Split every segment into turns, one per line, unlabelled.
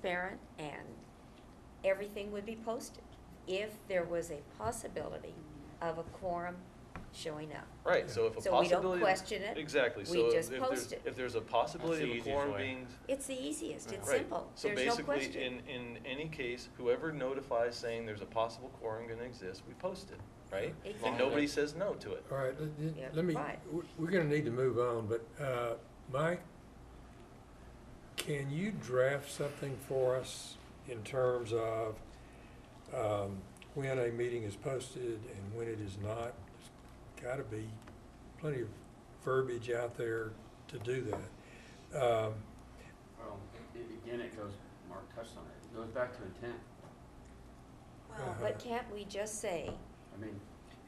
transparent and everything would be posted if there was a possibility of a quorum showing up.
Right, so if a possibility.
So we don't question it,
Exactly,
we
so if
just
if
post
there's,
it.
if there's a possibility
the
of a
easiest
quorum
way.
being.
It's the easiest, it's
Right.
simple, there's no
So basically, in,
question.
in any case, whoever notifies saying there's a possible quorum gonna exist, we post it, right? And
Exactly.
nobody says no to it.
All right, let- let-
Yeah,
let me,
right.
we- we're gonna need to move on, but, uh, Mike, can you draft something for us in terms of, um, when a meeting is posted and when it is not? There's Gotta be plenty of verbiage out there to do that. Um,
Well, it, again, it goes, Mark touched on it, it goes back to intent.
Well, But can't we just say,
I mean,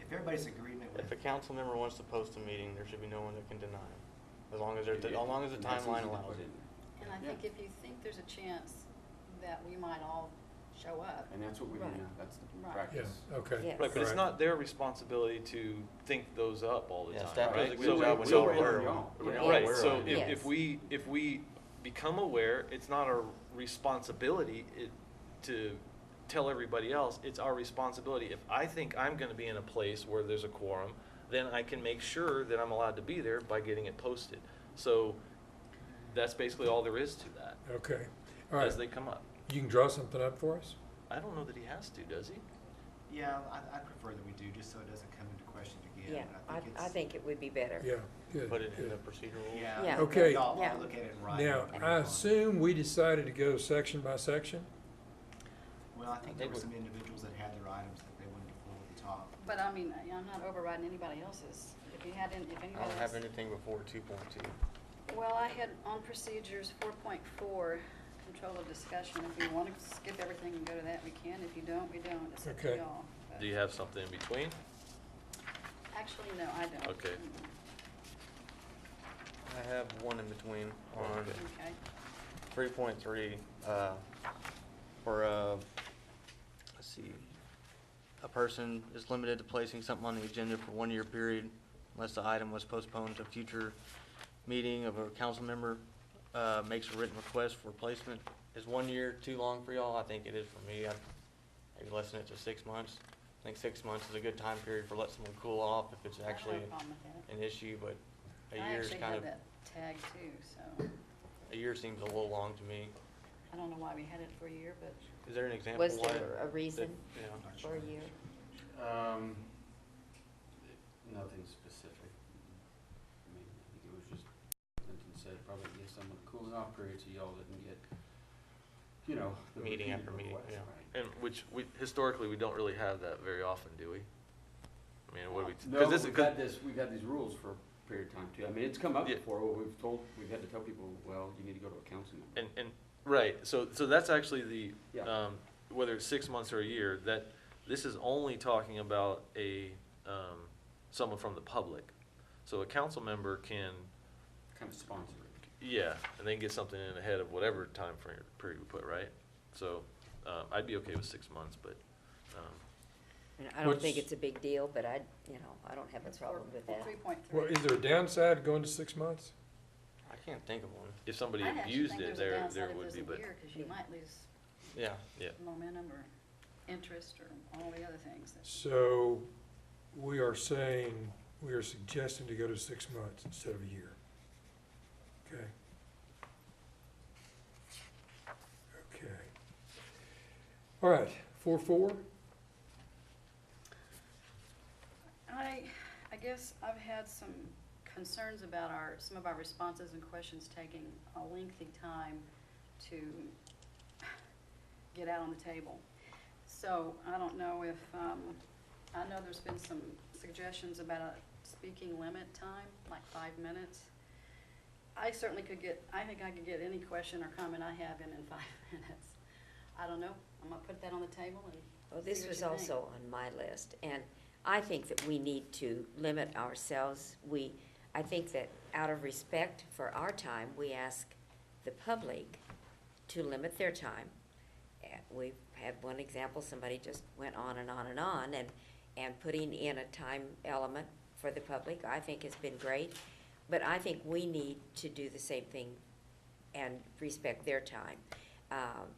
If everybody's agreement with,
If a council member wants to post a meeting, there should be no one that can deny it, as long as there's, as
it-
long as the
and that's
timeline
easy to
allows
put in
it.
there.
And I think if you think there's a chance that we might all show up,
And that's what we do
Right.
now, that's the
Right.
yeah,
practice.
okay.
Yes.
Right, but it's
Right.
not their responsibility to think those up all the
Yeah,
time.
staff
right?
does a
So
good job
we-
when
so
y'all
we're-
are aware.
y'all.
when
Yeah.
y'all
Right,
aware
so
of it.
if,
Yes.
if we, if we become aware, it's not our responsibility it, to tell everybody else, it's our responsibility. If I think I'm gonna be in a place where there's a quorum, then I can make sure that I'm allowed to be there by getting it posted. So that's basically all there is to that,
Okay, all right,
as they come up.
you can draw something up for us?
I don't know that he has to, does he?
yeah, I, I prefer that we do, just so it doesn't come into question
yeah,
again. but
I, I
it's-
think it would be better.
Yeah, good.
Put it in
good.
the procedural.
Yeah.
Yeah.
Okay.
Y'all
Yeah.
look at it and write it.
Now,
and
I
move on.
assume we decided to go section by section?
Well, I think
I
there
think
were
we-
some individuals that had their items that they wanted to pull at the top.
but I mean, I- I'm not overriding anybody else's. If you had, any- if
I
anybody
don't have
else.
anything before two point two.
Well, I had on procedures four point four, control of discussion. If you want to skip everything and go to that, we can. If you don't, we don't. It's up to
Okay.
y'all. But-
Do you have something in between?
Actually, no, I don't.
Okay.
Mm,
I have one in between on
Okay.
Okay.
three point three, uh, for, uh, let's see. A person is limited to placing something on the agenda for one year period unless the item was postponed to future meeting of a council member, uh, makes a written request for placement. Is one year too long for y'all? I think it is for me. I'd maybe lessen it to six months. I think six months is a good time period for let someone cool off if it's
I don't have a
actually
problem with that.
an issue, but a
I
year is
actually
kind
had
of,
that tag too, so
a year seems a little long to me.
I don't know why we had it for a year, but
Is there an example?
Was
why
there a
that-
reason
Yeah.
for a year?
Um, nothing specific. I mean, I think it was just, Clinton said, probably give someone a cooling off period so y'all didn't get, you know. the
Meeting
repeated
after meeting,
requests,
yeah.
right.
And which, we, historically, we don't really have that very often, do we? I mean, what do we?
No,
'cause this-
we've
'cause-
had this, we've had these rules for a period of time too. I mean, it's come up
Yeah.
before, where we've told, we've had to tell people, well, you need to go to a council member.
And, and, right, so, so that's actually the,
Yeah.
um, whether it's six months or a year, that, this is only talking about a, um, someone from the public. So a council member can,
Kind of sponsor it.
yeah, and they can get something in ahead of whatever time frame, period we put, right? So, um, I'd be okay with six months, but, um,
And I don't think
What's-
it's a big deal, but I, you know, I don't have a problem with that.
three point three.
Well, is there a downside going to six months?
I can't think of one.
if somebody abused it, there, there would be, but,
Because you might lose
Yeah.
yeah.
momentum or interest or all the other things. that-
So we are saying, we are suggesting to go to six months instead of a year. Okay? Okay. All right, four, four?
I, I guess I've had some concerns about our, some of our responses and questions taking a lengthy time to get out on the table. So I don't know if, um, I know there's been some suggestions about a speaking limit time, like five minutes. I certainly could get, I think I could get any question or comment I have in in five minutes. I don't know, I'm gonna put that on the table and
Well,
see
this
what
was
you think.
also on my list, and I think that we need to limit ourselves. We, I think that out of respect for our time, we ask the public to limit their time. And We've had one example, somebody just went on and on and on, and, and putting in a time element for the public, I think has been great. But I think we need to do the same thing and respect their time. Um,